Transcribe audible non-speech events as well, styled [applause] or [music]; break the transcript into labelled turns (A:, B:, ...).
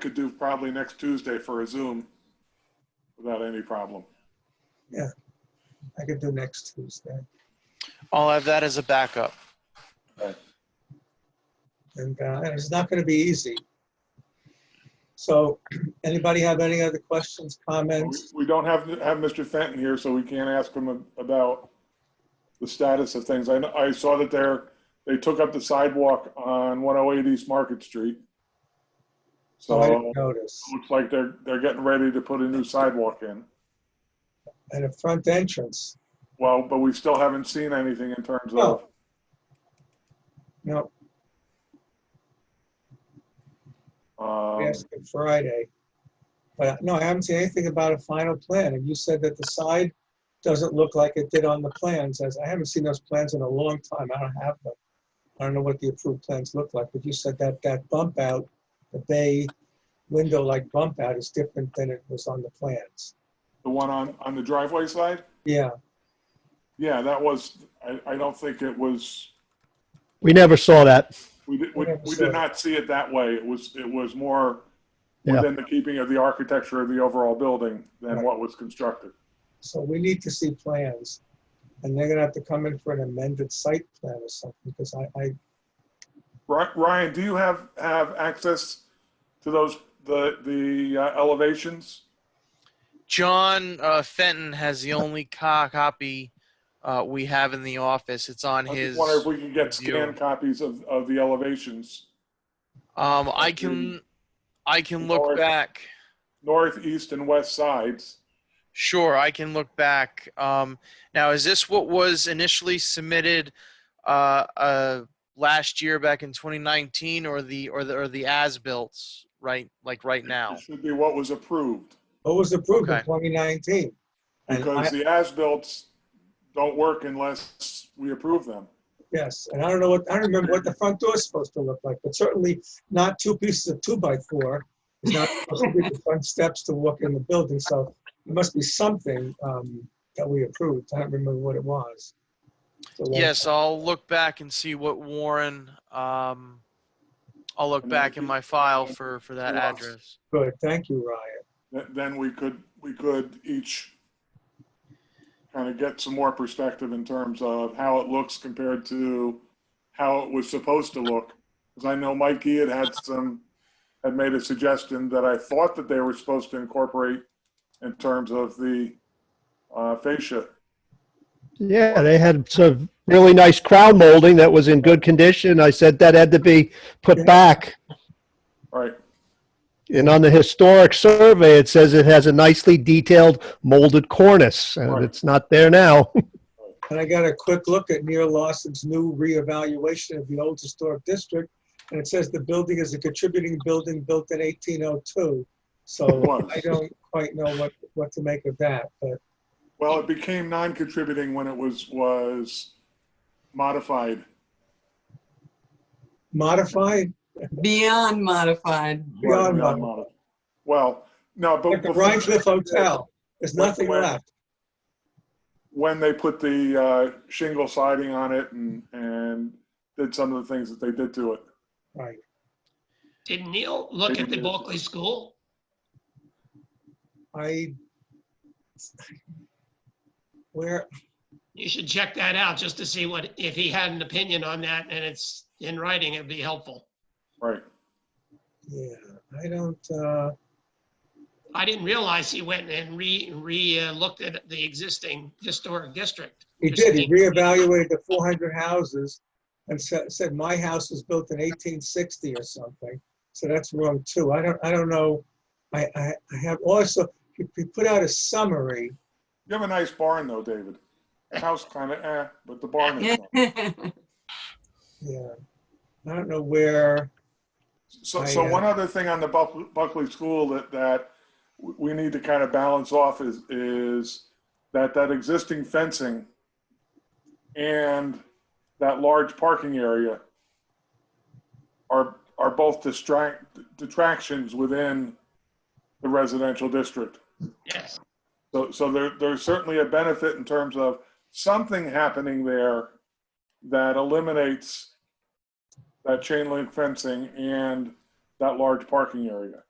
A: could do probably next Tuesday for a Zoom without any problem.
B: I could do next Tuesday.
C: I'll have that as a backup.
B: And, uh, and it's not gonna be easy. So [clears throat] anybody have any other questions,
A: We
B: comments?
A: we don't have, have Mr. Fenton here, so we can't ask him about the status of things. I, kn- I saw that they're, they took up the sidewalk on 108 East Market Street. So
B: So I
A: it
B: didn't notice.
A: looks like they're, they're getting ready to put a new sidewalk in.
B: And a front entrance.
A: Well, but we still haven't seen anything in terms of,
B: No,
A: um,
B: we asked him Friday. But no, I haven't seen anything about a final plan. And you said that the side doesn't look like it did on the plans. As I haven't seen those plans in a long time. I don't have them. I don't know what the approved plans look like, but you said that that bump out, the bay window-like bump out is different than it was on the plans.
A: the one on, on the driveway side.
B: Yeah,
A: Yeah, that was, I, I don't think it was,
D: We never saw that.
A: we did, we,
B: I never
A: we
B: saw
A: did
B: it.
A: not see it that way. It was, it was more
D: Yeah.
A: within the keeping of the architecture of the overall building than
B: Right.
A: what was constructed.
B: so we need to see plans. And they're gonna have to come in for an amended site plan or something, because I, I,
A: Ri- Ryan, do you have, have access to those, the, the uh, elevations?
C: John uh, Fenton has the only co- copy uh, we have in the office. It's on
A: I just
C: his.
A: wonder if we can get
C: view.
A: scanned copies of, of the elevations,
C: Um, I can, I can
A: Or-
C: look back.
A: north, east, and west sides.
C: Sure, I can look back. Um, now, is this what was initially submitted uh, uh, last year, back in 2019, or the or the or the as-built right, like right now?
A: It Should be what was approved,
B: what was approved in
C: Okay.
B: 2019. And I-
A: because the as-bills don't work unless we approve them.
B: Yes, and I don't know what, I don't remember what the front door is supposed to look like, but certainly not two pieces of two by four. It's not supposed to be the front steps to walk in the building, so there must be something um, that we approved. I don't remember what it was. So, like,
C: Yes, I'll look back and see what Warren. Um, I'll look
A: And then
C: back
A: if
C: in
A: you-
C: my file for for that
A: Yes.
C: address.
B: Good, thank you, Ryan.
A: th- then we could, we could each kind of get some more perspective in terms of how it looks compared to how it was supposed to look. Because I know Mikey had had some, had made a suggestion that I thought that they were supposed to incorporate in terms of the uh, fascia.
D: Yeah, they had some really nice crown molding that was in good condition. I said that had to be put back.
A: All right,
D: And on the historic survey, it says it has a nicely detailed molded cornice,
A: Right.
D: and it's not there now.
B: And I got a quick look at Neil Lawson's new reevaluation of the old historic district, and it says the building is a contributing building built in 1802.
A: it
B: So I
A: was.
B: don't quite know what, what to make of that, but
A: Well, it became non-contributing when it was, was modified.
B: modified,
E: Beyond modified. [laughs]
B: Beyond modified.
A: modified. Well, no, but.
B: Like the
A: before-
B: Rhine Cliff Hotel, there's nothing
A: Where-
B: left.
A: when they put the uh, shingle siding on it and, and did some of the things that they did to it.
B: Right.
F: Did Neil look at the Bulkley School?
B: I, where,
F: You should check that out just to see what, if he had an opinion on that and it's in writing, it'd be helpful.
A: Right.
B: yeah, I don't, uh,
F: I didn't realize he went and re, re, uh, looked at the existing historic district.
B: he did, he reevaluated the 400 houses and said, said my house was built in 1860 or something. So that's wrong too. I don't, I don't know. I, I, I have also, he he put out a summary.
A: You have a nice barn though, David. The house kind of eh, but the barn is. nice.
B: Yeah. I don't know where,
A: So, so one other thing on the Buck- Buckley School that, that we we need to kind of balance off is, is that, that existing fencing and that large parking area are, are both distract, detractions within the residential district.
F: Yes,
A: So, so there, there's certainly a benefit in terms of something happening there that eliminates that chain link fencing and that large parking area.